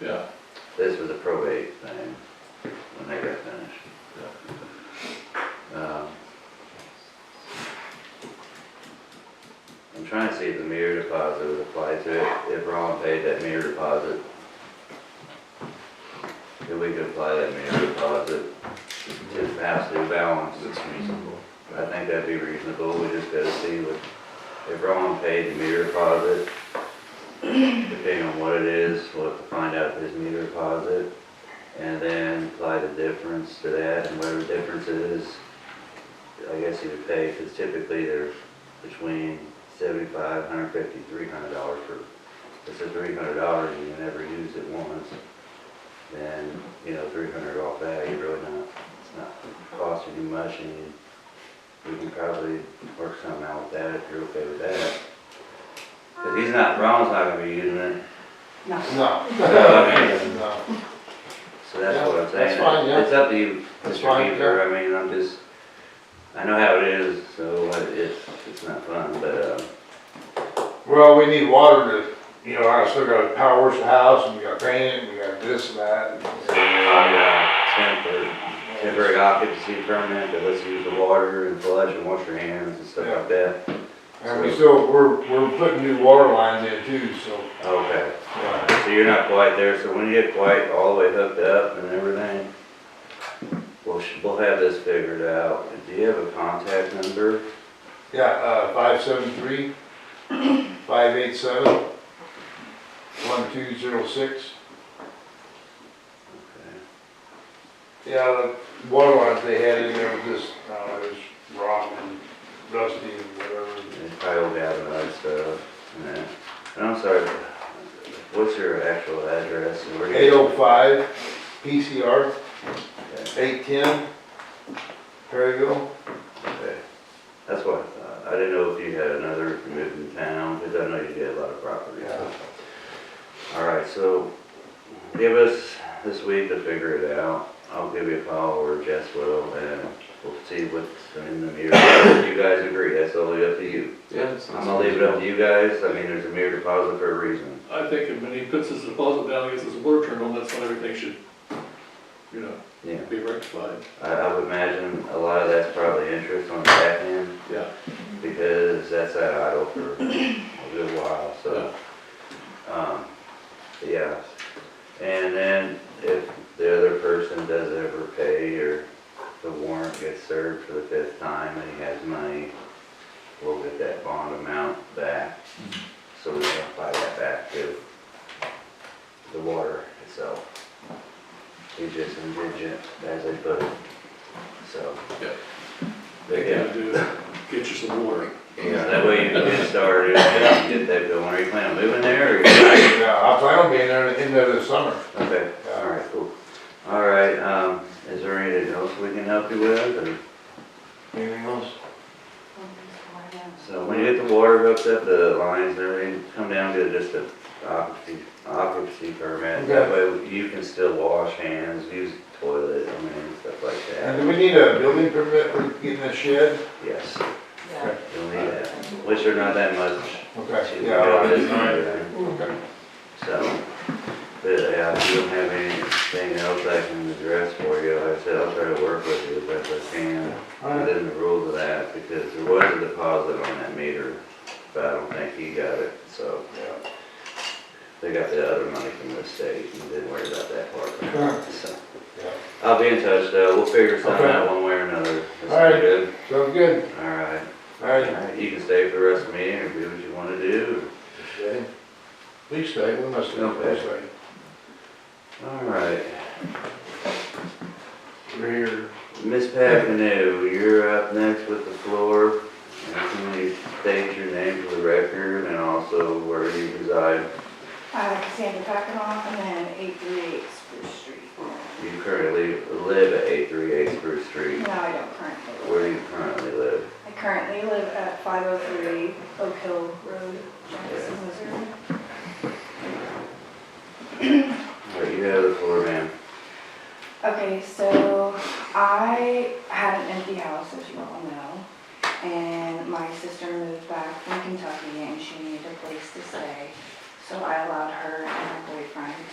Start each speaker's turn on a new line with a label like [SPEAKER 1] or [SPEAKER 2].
[SPEAKER 1] Yeah,
[SPEAKER 2] This was a probate thing when they got finished. Um, I'm trying to see if the mirror deposit would apply to it, if Ron paid that mirror deposit. If we could apply that mirror deposit to the past due balance.
[SPEAKER 1] it's reasonable.
[SPEAKER 2] I think that'd be reasonable, we just gotta see what, if Ron paid the meter deposit, depending on what it is, we'll have to find out his meter deposit, and then apply the difference to that, and whatever the difference is, I guess he would pay, because typically they're between seventy-five, hundred fifty, three hundred dollars for, if it's three hundred dollars, and you never use it once, then, you know, three hundred off that, you're really not, it's not costing you much, and you we can probably work something out with that if you're okay with that. Cause he's not, Ron's not gonna be using it,
[SPEAKER 3] No.
[SPEAKER 4] No.
[SPEAKER 2] Okay.
[SPEAKER 4] No.
[SPEAKER 2] so that's what I'm
[SPEAKER 4] Yeah, that's
[SPEAKER 2] saying.
[SPEAKER 4] fine, yeah.
[SPEAKER 2] It's up to you,
[SPEAKER 4] That's
[SPEAKER 2] Mr.
[SPEAKER 4] fine,
[SPEAKER 2] Beaver, I mean, I'm just, I know how it is, so I- it's, it's not fun, but, uh,
[SPEAKER 4] Well, we need water to, you know, I still gotta power wash the house, and we gotta paint it, and we got this and that.
[SPEAKER 2] and, uh, temporary, temporary occupancy permit, that lets you use the water and flush and wash your hands and stuff like that.
[SPEAKER 4] And we still, we're, we're putting new water lines in too, so,
[SPEAKER 2] Okay,
[SPEAKER 4] yeah.
[SPEAKER 2] so you're not quite there, so when you get quite all the way hooked up and everything, we'll, sh- we'll have this figured out. Do you have a contact number?
[SPEAKER 4] Yeah, uh, five seven three, five eight seven, one two zero six. Yeah, the water lines they had in there was just, I don't know, it was rotten and rusty and whatever.
[SPEAKER 2] It's probably old Davenport stuff, and that. And I'm sorry, what's your actual address? and where do you-
[SPEAKER 4] Eight oh five, PCR, eight ten, Perryville.
[SPEAKER 2] Okay. That's what I thought. I didn't know if you had another, if you moved in town, because I know you did a lot of property.
[SPEAKER 4] Yeah.
[SPEAKER 2] All right, so give us this week to figure it out. I'll give you a call or Jess will, and we'll see what's in the mirror. If you guys agree, that's totally up to you.
[SPEAKER 1] Yeah. it's-
[SPEAKER 2] I'm gonna leave it up to you guys. I mean, there's a mirror deposit for a reason.
[SPEAKER 1] I think when he puts his deposit down against his water terminal, that's when everything should, you know,
[SPEAKER 2] Yeah.
[SPEAKER 1] be rectified.
[SPEAKER 2] I, I would imagine a lot of that's probably interest on the back end
[SPEAKER 1] Yeah.
[SPEAKER 2] because that's at idle for a good while, so. Um, yeah, and then if the other person does ever pay or the warrant gets served for the fifth time and he has money, we'll get that bond amount back. So we can apply that back to the water itself. He's just indigent, as they put it, so.
[SPEAKER 1] Yeah.
[SPEAKER 2] But
[SPEAKER 1] You
[SPEAKER 2] yeah.
[SPEAKER 1] gotta do is Get you some water.
[SPEAKER 2] Yeah, that way you can get started, and get that going, are you planning on moving there, or? you-
[SPEAKER 4] Yeah, I plan on being there at the end of the summer.
[SPEAKER 2] Okay, alright, cool. Alright, um, is there anything else we can help you with, or,
[SPEAKER 4] Anything else?
[SPEAKER 2] so when you get the water hooked up, the lines, and everything, come down, get just a occupancy, occupancy permit, that way you can still wash hands, use the toilet, I mean, stuff like
[SPEAKER 4] And
[SPEAKER 2] that,
[SPEAKER 4] do we need a building permit for getting a shed?
[SPEAKER 2] yes,
[SPEAKER 3] Yeah.
[SPEAKER 2] you'll need that, which are not that much.
[SPEAKER 4] Okay,
[SPEAKER 2] to
[SPEAKER 4] yeah, all
[SPEAKER 2] build this and
[SPEAKER 4] right.
[SPEAKER 2] everything.
[SPEAKER 4] Okay.
[SPEAKER 2] So, but yeah, if you don't have anything else I can address for you, like I said, I'll try to work with you as best I can
[SPEAKER 4] All right.
[SPEAKER 2] within the rules of that, because there was a deposit on that meter, but I don't think he got it, so
[SPEAKER 4] Yeah.
[SPEAKER 2] they got the other money from the state, and didn't worry about that part.
[SPEAKER 4] Sure.
[SPEAKER 2] So,
[SPEAKER 4] Yeah.
[SPEAKER 2] I'll be in touch though, we'll figure something
[SPEAKER 4] Okay.
[SPEAKER 2] out one way or another. That's
[SPEAKER 4] All right.
[SPEAKER 2] good.
[SPEAKER 4] Sounds good.
[SPEAKER 2] All right,
[SPEAKER 4] All
[SPEAKER 2] all
[SPEAKER 4] right.
[SPEAKER 2] right, you can stay for the rest of the meeting, or do what you wanna do,
[SPEAKER 4] We stay, we must stay, we
[SPEAKER 2] Okay.
[SPEAKER 4] stay.
[SPEAKER 2] all right.
[SPEAKER 4] We're here.
[SPEAKER 2] Miss Papineau, you're up next with the floor. And Can you state your name for the record and also where you reside?
[SPEAKER 3] Uh, Cassandra Packenoff and then eight three eight Spruce Street.
[SPEAKER 2] You currently live at 838 Spruce Street.
[SPEAKER 3] No, I don't currently.
[SPEAKER 2] Where do you currently live?
[SPEAKER 3] I currently live at five oh three Oak Hill Road, Jackson, Missouri.
[SPEAKER 2] All right, you have the floor, ma'am.
[SPEAKER 3] Okay, so I had an empty house, as you all know, and my sister moved back from Kentucky and she needed a place to stay. So I allowed her and her boyfriend